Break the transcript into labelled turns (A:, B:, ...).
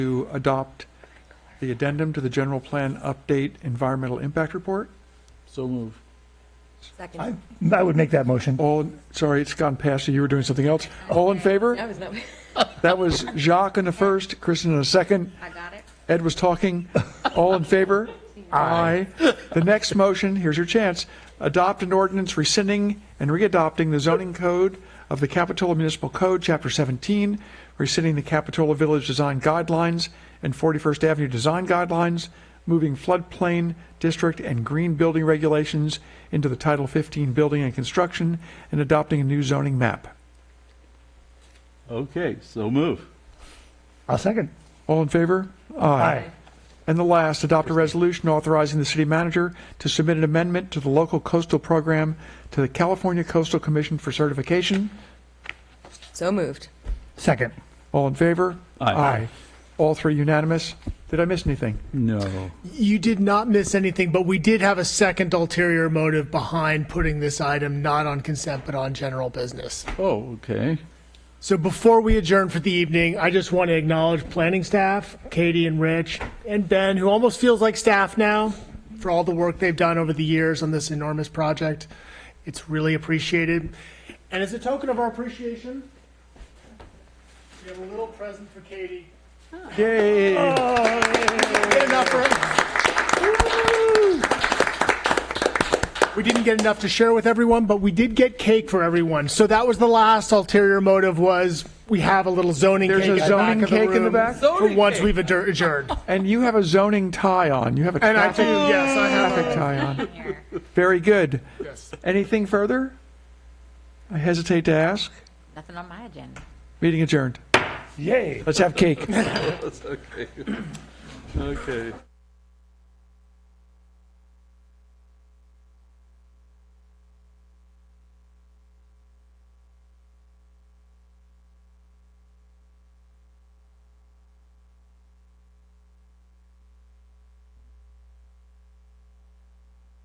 A: to adopt the addendum to the general plan update environmental impact report.
B: So move.
C: I,
D: Second.
C: I would make that motion.
A: All, sorry, it's gone past you, you were doing something else. All in favor?
D: That was not,
A: That was Jacques in the first, Kristen in the second,
D: I got it.
A: Ed was talking. All in favor? Aye. The next motion, here's your chance, adopt an ordinance rescinding and readopting the zoning code of the Capitola Municipal Code, Chapter 17, rescinding the Capitola Village Design Guidelines and 41st Avenue Design Guidelines, moving floodplain district and green building regulations into the Title 15 Building and Construction, and adopting a new zoning map.
B: Okay, so move.
C: I'll second.
A: All in favor?
C: Aye.
A: And the last, adopt a resolution authorizing the city manager to submit an amendment to the local coastal program to the California Coastal Commission for certification.
D: So moved.
C: Second.
A: All in favor?
B: Aye.
A: All three unanimous. Did I miss anything?
B: No.
E: You did not miss anything, but we did have a second ulterior motive behind putting this item not on consent but on general business.
B: Oh, okay.
E: So before we adjourn for the evening, I just want to acknowledge planning staff, Katie and Rich, and Ben, who almost feels like staff now, for all the work they've done over the years on this enormous project. It's really appreciated. And as a token of our appreciation, we have a little present for Katie.
A: Yay!
E: Get enough for We didn't get enough to share with everyone, but we did get cake for everyone. So that was the last ulterior motive was we have a little zoning
A: There's
E: cake
A: a
E: in the
A: zoning
E: back of
A: cake in the
E: room
A: back?
E: For once we've adjour- adjourned.
A: And you have a zoning tie on. You have a
E: And I do,
A: traffic
E: yes, I have.
A: traffic tie on. Very good. Anything further? I hesitate to ask.
D: Nothing on my agenda.
A: Meeting adjourned.
C: Yay.
A: Let's have cake.
B: That's okay. Okay.